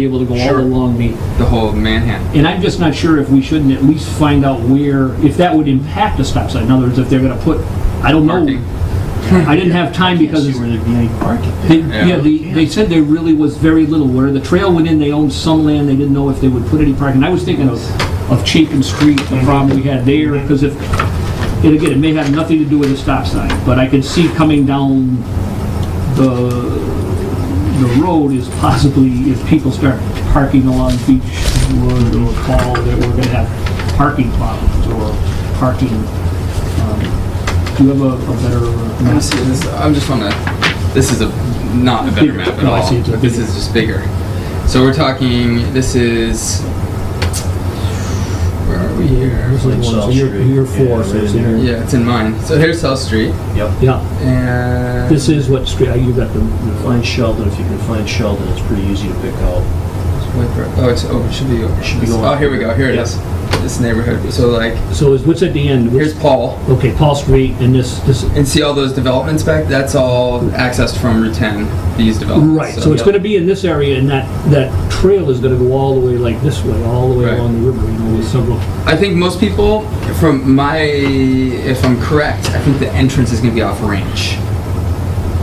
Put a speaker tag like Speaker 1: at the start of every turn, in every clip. Speaker 1: be able to go all
Speaker 2: Sure.
Speaker 1: along the,
Speaker 2: the whole Manhattan.
Speaker 1: and I'm just not sure if we shouldn't at least find out where, if that would impact a stop sign. In other words, if they're gonna put, I don't know.
Speaker 2: Parking.
Speaker 1: I didn't have time because
Speaker 3: Can't see
Speaker 1: it's
Speaker 3: where there'd be any parking.
Speaker 1: They,
Speaker 2: Yeah.
Speaker 1: yeah, they, they said there really was very little. Where the trail went in, they owned some land, they didn't know if they would put any parking. I was thinking of, of Chapin Street, the problem we had there, because if, and again, it may have nothing to do with the stop sign, but I could see coming down the, the road is possibly, if people start parking along Beach Road or Fall, that we're gonna have parking problems or parking, um, do you have a, a better? uh, map?
Speaker 2: Honestly, this, I'm just on a. This is a not a better
Speaker 1: Bigger.
Speaker 2: map at
Speaker 4: Oh,
Speaker 1: No, I
Speaker 2: all.
Speaker 1: see it's a
Speaker 2: but this
Speaker 1: bigger.
Speaker 2: is just bigger. So we're talking. This is. Where are we here?
Speaker 4: Usually ones
Speaker 3: South
Speaker 4: year-
Speaker 3: Street.
Speaker 4: year
Speaker 3: Yeah,
Speaker 4: four,
Speaker 3: right
Speaker 4: so it's
Speaker 3: in there.
Speaker 4: inter-
Speaker 2: Yeah, it's in mine. So here's South Street,
Speaker 3: Yep.
Speaker 4: Yeah,
Speaker 2: and
Speaker 4: this is what street, you got the,
Speaker 3: Find Sheldon, if you can find Sheldon, it's pretty easy to pick out.
Speaker 2: Oh, it's over. It should be over.
Speaker 4: Should be
Speaker 2: This-
Speaker 4: going
Speaker 2: Oh,
Speaker 4: up.
Speaker 2: here we go. Here it
Speaker 4: Yep.
Speaker 2: is. This neighborhood. So like,
Speaker 4: so is, what's at the end?
Speaker 2: here's
Speaker 4: Where's-
Speaker 2: Paul,
Speaker 4: Okay, Paul Street and this, this,
Speaker 2: and see all those developments back. That's all accessed from Route 10. These developments.
Speaker 4: right, so it's
Speaker 2: yeah.
Speaker 4: gonna be in this area and that, that trail is gonna go all the way like this way, all the way
Speaker 2: Right.
Speaker 4: along the river, you know, with several,
Speaker 2: I think most people, from my, if I'm correct, I think the entrance is going to be off range.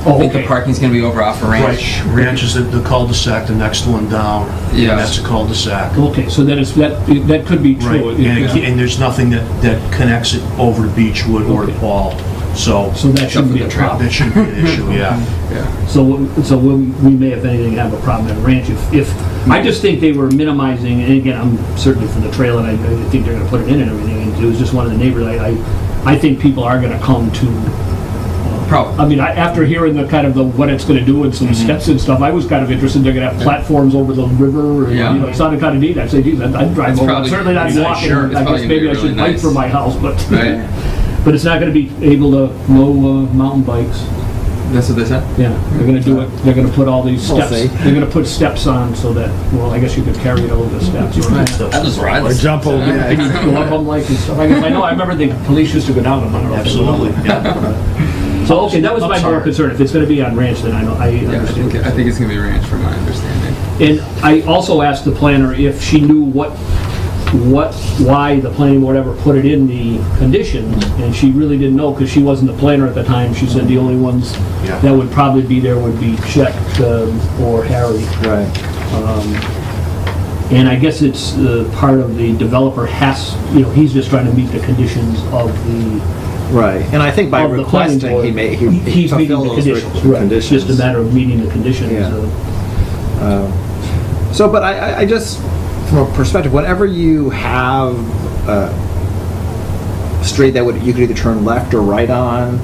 Speaker 2: I
Speaker 4: oh,
Speaker 2: think the
Speaker 4: okay.
Speaker 2: parking's going to be over off range.
Speaker 3: Right, Ranch is the- the cul-de-sac, the next one down. and
Speaker 2: Yes.
Speaker 3: That's a cul-de-sac.
Speaker 1: Okay, so that is, that, that could be
Speaker 3: Right,
Speaker 1: true.
Speaker 3: and, it- and there's nothing that, that connects it over to Beechwood or to
Speaker 1: Okay.
Speaker 3: Paul, so
Speaker 1: So that shouldn't be a problem.
Speaker 3: that shouldn't be an issue, yeah.
Speaker 2: Yeah.
Speaker 1: So, so we we may, if anything, have a problem at Ranch if, if, I just think they were minimizing, and again, I'm certainly for the trail, and I I think they're gonna put it in and everything, and it was just one of the neighbors, I, I, I think people are gonna come to,
Speaker 2: Probably.
Speaker 1: I mean, I- after hearing the kind of the, what it's gonna do and some
Speaker 2: Mm-hmm.
Speaker 1: steps and stuff, I was kind of interested, they're gonna have platforms over the river, and,
Speaker 2: Yeah.
Speaker 1: you know, it sounded kinda neat, I'd say, geez, I'd- I'd drive
Speaker 2: It's
Speaker 1: over,
Speaker 2: probably
Speaker 1: certainly not
Speaker 2: gonna be nice,
Speaker 1: walking,
Speaker 2: sure, it's
Speaker 1: I
Speaker 2: probably
Speaker 1: guess
Speaker 2: gonna be
Speaker 1: maybe I
Speaker 2: really
Speaker 1: should bike
Speaker 2: nice.
Speaker 1: from my house, but.
Speaker 2: Right.
Speaker 1: But it's not gonna be able to, no uh, mountain bikes.
Speaker 2: That's what they said.
Speaker 1: Yeah, they're gonna do it, they're gonna put all these
Speaker 4: We'll
Speaker 1: steps,
Speaker 4: see.
Speaker 1: they're gonna put steps on so that, well, I guess you could carry it over the steps. or not.
Speaker 2: I'll just ride
Speaker 5: Or
Speaker 2: this.
Speaker 5: jump over
Speaker 1: I
Speaker 5: it.
Speaker 1: think you go up on like and stuff. I guess- I know, I remember the police used to go down on Monroe.
Speaker 3: Absolutely, yeah.
Speaker 1: So, okay, that was my
Speaker 3: Upside.
Speaker 1: more concern. If it's gonna be on ranch, then I know, I
Speaker 2: Yeah, I
Speaker 1: understand.
Speaker 2: think, I think it's going to be range from my
Speaker 1: And
Speaker 2: understanding.
Speaker 1: I also asked the planner if she knew what, what, why the planning board ever put it in the conditions, and she really didn't know, because she wasn't the planner at the time. She said the only ones
Speaker 3: Yeah.
Speaker 1: that would probably be there would be Chet um, or Harry.
Speaker 5: Right.
Speaker 1: And I guess it's uh, part of the developer has, you know, he's just trying to meet the conditions of the,
Speaker 5: Right, and I think by
Speaker 1: of the planning
Speaker 5: requesting,
Speaker 1: board.
Speaker 5: he may,
Speaker 1: He-
Speaker 5: he
Speaker 1: He's meeting the
Speaker 5: fulfilled those
Speaker 1: conditions.
Speaker 5: re-
Speaker 1: right. It's
Speaker 5: conditions.
Speaker 1: just a matter of meeting the conditions.
Speaker 5: Yeah.
Speaker 1: uh,
Speaker 5: So, but I, I- I just, from a perspective, whenever you have a street that would, you could either turn left or right on,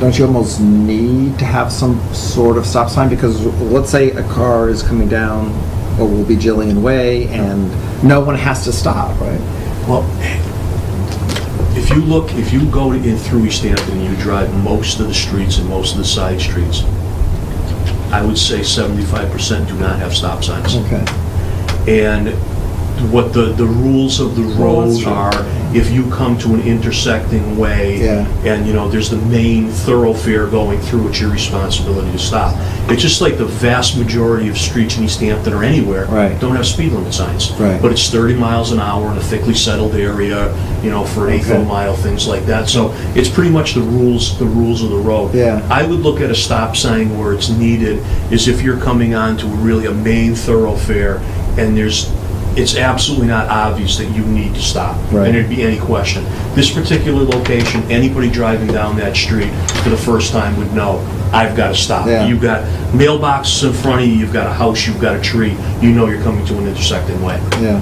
Speaker 5: don't you almost need to have some sort of stop sign? Because let's say a car is coming down, or will be Jillian Way, and no one has to stop, right?
Speaker 3: Well, if you look, if you go in through East Hampton, and you drive most of the streets and most of the side streets, I would say seventy-five percent do not have stop signs.
Speaker 5: Okay.
Speaker 3: and what the, the rules of the
Speaker 5: Well,
Speaker 3: road
Speaker 5: that's true.
Speaker 3: are, if you come to an intersecting way,
Speaker 5: Yeah.
Speaker 3: and, you know, there's the main thoroughfare going through, it's your responsibility to stop. It's just like the vast majority of streets in East Hampton or anywhere.
Speaker 5: Right.
Speaker 3: Don't have speed limit signs.
Speaker 5: Right.
Speaker 3: But it's 30 miles an hour in a thickly settled area, you know, for an eighth of a
Speaker 5: Okay.
Speaker 3: mile, things like that. So it's pretty much the rules, the rules of the road.
Speaker 5: Yeah.
Speaker 3: I would look at a stop sign where it's needed is if you're coming onto really a main thoroughfare and there's, it's absolutely not obvious that you need to stop.
Speaker 5: Right.
Speaker 3: And there'd be any question. This particular location, anybody driving down that street for the first time would know, I've got to stop.
Speaker 5: Yeah.
Speaker 3: You've got mailboxes in front of you, you've got a house, you've got a tree, you know you're coming to an intersecting way.
Speaker 5: Yeah.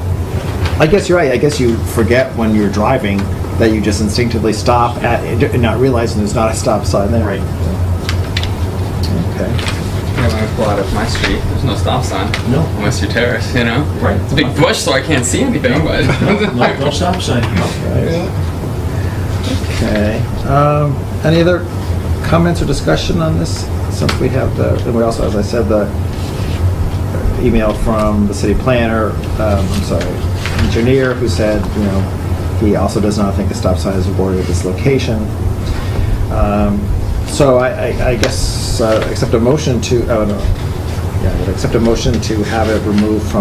Speaker 5: I guess you're right. I guess you forget when you're driving that you just instinctively stop at, not realizing there's not a stop sign there.
Speaker 3: Right.
Speaker 5: Okay.
Speaker 2: Yeah, when I pull out of my street, there's no stop sign.
Speaker 3: No.
Speaker 2: Unless you're terrorist, you know?
Speaker 3: Right.
Speaker 2: It's a big bush, so I can't see anything, but.
Speaker 3: No, no stop sign.
Speaker 5: Okay. Um, any other comments or discussion on this? Since we have the, and we also, as I said, the email from the city planner, um, I'm sorry, engineer, who said, you know, he also does not think a stop sign is awarded at this location. Um, So I, I- I guess, uh, accept a motion to, oh, no. Yeah, I would accept a motion to have it removed from